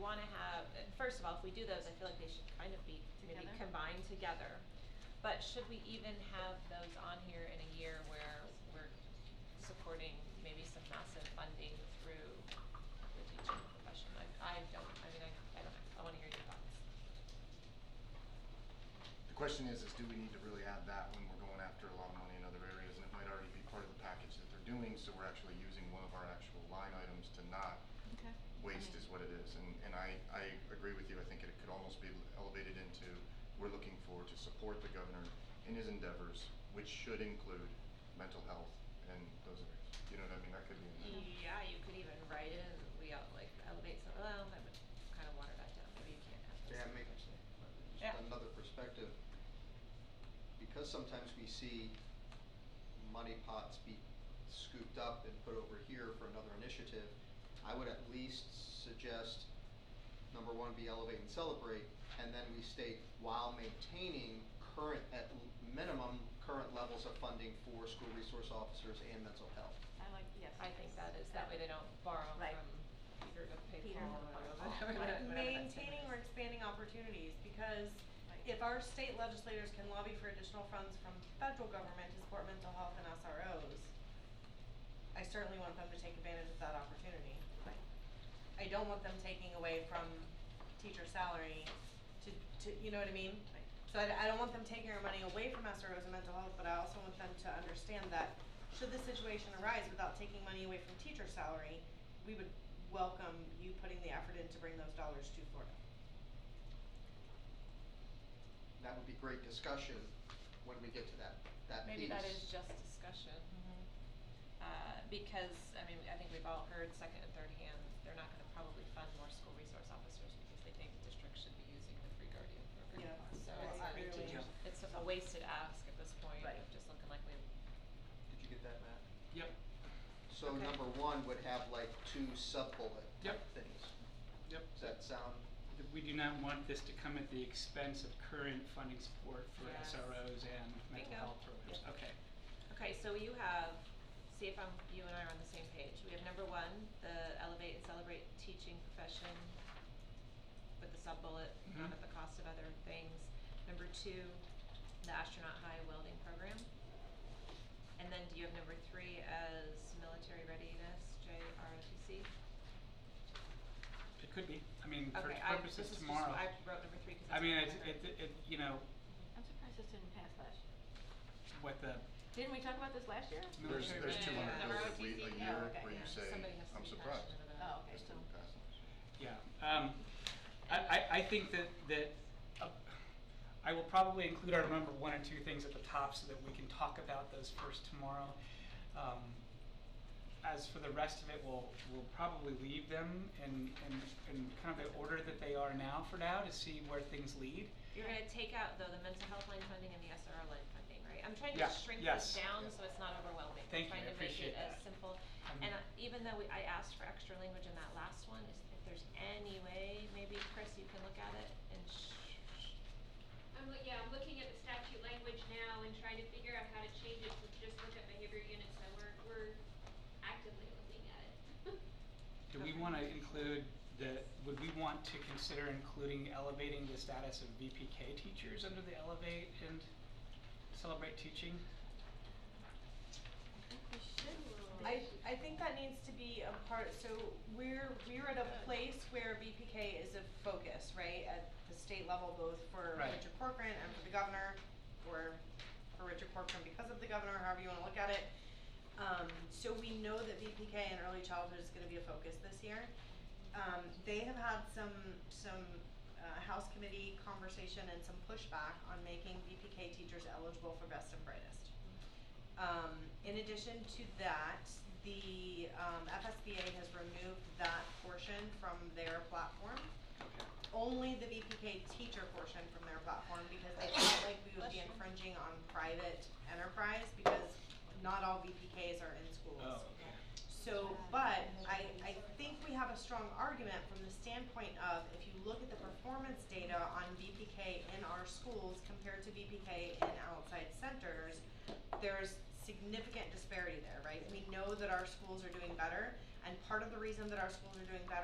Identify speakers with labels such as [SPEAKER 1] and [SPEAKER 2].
[SPEAKER 1] wanna have, uh, first of all, if we do those, I feel like they should kind of be maybe
[SPEAKER 2] Together?
[SPEAKER 1] combined together. But should we even have those on here in a year where we're supporting maybe some massive funding through the teaching profession? I, I don't, I mean, I, I don't know, I wanna hear your thoughts.
[SPEAKER 3] The question is, is do we need to really add that when we're going after a lot of money in other areas, and it might already be part of the package that they're doing, so we're actually using one of our actual line items to not
[SPEAKER 2] Okay.
[SPEAKER 3] waste is what it is, and, and I, I agree with you, I think it could almost be elevated into, we're looking for to support the governor in his endeavors, which should include mental health and those areas, you know what I mean, that could be in there.
[SPEAKER 1] Yeah, you could even write it and we all like elevate some, well, that would kind of water that down, maybe you can't have those.
[SPEAKER 4] Yeah, make,
[SPEAKER 2] Yeah.
[SPEAKER 4] just another perspective. Because sometimes we see money pots be scooped up and put over here for another initiative, I would at least suggest, number one, be elevate and celebrate, and then we state while maintaining current, at l- minimum, current levels of funding for school resource officers and mental health.
[SPEAKER 2] I like, yes.
[SPEAKER 1] I think that is, that way they don't borrow
[SPEAKER 2] Right.
[SPEAKER 1] from Peter to pay
[SPEAKER 2] Peter
[SPEAKER 1] Paul
[SPEAKER 2] to
[SPEAKER 1] or
[SPEAKER 2] pay
[SPEAKER 1] whatever-
[SPEAKER 2] Paul.
[SPEAKER 1] whatever that
[SPEAKER 5] Like
[SPEAKER 1] statement
[SPEAKER 5] maintaining or
[SPEAKER 1] is.
[SPEAKER 5] expanding opportunities, because
[SPEAKER 2] Right.
[SPEAKER 5] if our state legislators can lobby for additional funds from federal government to support mental health and SROs, I certainly want them to take advantage of that opportunity.
[SPEAKER 2] Right.
[SPEAKER 5] I don't want them taking away from teacher salary to, to, you know what I mean?
[SPEAKER 2] Right.
[SPEAKER 5] So I, d- I don't want them taking our money away from SROs and mental health, but I also want them to understand that should this situation arise without taking money away from teacher salary, we would welcome you putting the effort in to bring those dollars to Florida.
[SPEAKER 4] That would be great discussion when we get to that, that piece.
[SPEAKER 1] Maybe that is just discussion.
[SPEAKER 2] Mm-hmm.
[SPEAKER 1] Uh, because, I mean, I think we've all heard second and third hand, they're not gonna probably fund more school resource officers because they think districts should be using the free guardian program.
[SPEAKER 5] Yeah.
[SPEAKER 1] So
[SPEAKER 5] Well,
[SPEAKER 1] it's
[SPEAKER 5] I
[SPEAKER 1] a,
[SPEAKER 5] really- Yeah.
[SPEAKER 1] it's a wasted ask at this point
[SPEAKER 2] Right.
[SPEAKER 1] of just looking like we
[SPEAKER 4] Did you get that, Matt?
[SPEAKER 6] Yep,
[SPEAKER 4] So
[SPEAKER 1] Okay.
[SPEAKER 4] number one would have like two sub-bullet type
[SPEAKER 6] Yep.
[SPEAKER 4] things.
[SPEAKER 6] yep.
[SPEAKER 4] Does that sound,
[SPEAKER 6] That We do not want this to come at the expense of current funding support for
[SPEAKER 1] Yes.
[SPEAKER 6] SROs and mental
[SPEAKER 1] Bingo.
[SPEAKER 6] health programs.
[SPEAKER 1] Yep.
[SPEAKER 6] Okay.
[SPEAKER 1] Okay, so you have, see if I'm, you and I are on the same page. We have number one, the elevate and celebrate teaching profession with the sub-bullet, not
[SPEAKER 6] Mhm.
[SPEAKER 1] at the cost of other things. Number two, the astronaut high welding program. And then do you have number three as military readiness, JROTC?
[SPEAKER 6] It could be, I mean, for
[SPEAKER 1] Okay, I, this is
[SPEAKER 6] purposes
[SPEAKER 1] just,
[SPEAKER 6] tomorrow.
[SPEAKER 1] I wrote number three because
[SPEAKER 6] I
[SPEAKER 1] that's
[SPEAKER 6] mean,
[SPEAKER 1] what I
[SPEAKER 6] it,
[SPEAKER 1] remembered.
[SPEAKER 6] it, it, you know,
[SPEAKER 2] I'm surprised this didn't pass last year.
[SPEAKER 6] what the
[SPEAKER 2] Didn't we talk about this last year?
[SPEAKER 1] Mm-hmm.
[SPEAKER 3] There's,
[SPEAKER 6] military.
[SPEAKER 3] there's
[SPEAKER 1] Yeah,
[SPEAKER 3] two
[SPEAKER 1] yeah,
[SPEAKER 3] hundred
[SPEAKER 1] yeah.
[SPEAKER 3] bills that we, a
[SPEAKER 1] ROTC,
[SPEAKER 2] yeah,
[SPEAKER 3] year
[SPEAKER 2] okay,
[SPEAKER 3] where
[SPEAKER 2] yeah.
[SPEAKER 3] you say,
[SPEAKER 1] Oh, Somebody has to
[SPEAKER 3] I'm
[SPEAKER 1] be
[SPEAKER 3] surprised.
[SPEAKER 1] passionate about it.
[SPEAKER 2] Oh, okay,
[SPEAKER 3] This
[SPEAKER 2] so,
[SPEAKER 3] didn't pass last year.
[SPEAKER 6] Yeah, um, I, I, I think that, that, uh, I will probably include our number one and two things at the top so that we can talk about those first tomorrow. Um, as for the rest of it, we'll, we'll probably leave them in, in, in kind of the order that they are now for now to see where things lead.
[SPEAKER 1] You're gonna take out though the mental health line funding and the SRO line funding, right? I'm trying to
[SPEAKER 6] Yeah,
[SPEAKER 1] shrink
[SPEAKER 6] yes.
[SPEAKER 1] this down
[SPEAKER 4] Yeah.
[SPEAKER 1] so it's not overwhelming.
[SPEAKER 6] Thank you, I
[SPEAKER 1] I'm
[SPEAKER 6] appreciate
[SPEAKER 1] trying to make it as
[SPEAKER 6] that.
[SPEAKER 1] simple,
[SPEAKER 6] Mhm.
[SPEAKER 1] and uh, even though we, I asked for extra language in that last one, is if there's any way, maybe Chris, you can look at it and sh- sh-
[SPEAKER 7] I'm, loo- yeah, I'm looking at the statute language now and trying to figure out how to change it to just look at behavior units, so we're, we're actively looking at it.
[SPEAKER 6] Do we
[SPEAKER 1] Okay.
[SPEAKER 6] want to include the, would we want to consider including elevating the status of VPK teachers under the elevate and celebrate teaching?
[SPEAKER 5] I, I think that needs to be a part, so we're, we're at a place where BPK is a focus, right? At the state level, both for
[SPEAKER 6] Right.
[SPEAKER 5] Richard Corcoran and for the governor, or for Richard Corcoran because of the governor, however you wanna look at it. Um, so we know that BPK and early childhood is gonna be a focus this year. Um, they have had some, some, uh, House Committee conversation and some pushback on making BPK teachers eligible for best and brightest. Um, in addition to that, the, um, FSBA has removed that portion from their platform.
[SPEAKER 6] Okay.
[SPEAKER 5] Only the VPK teacher portion from their platform because they felt like we would be infringing on private enterprise because not all VPKs are in schools.
[SPEAKER 6] Oh, okay.
[SPEAKER 5] So, but I, I think we have a strong argument from the standpoint of if you look at the performance data on VPK in our schools compared to VPK in outside centers, there's significant disparity there, right? We know that our schools are doing better, and part of the reason that our schools are doing better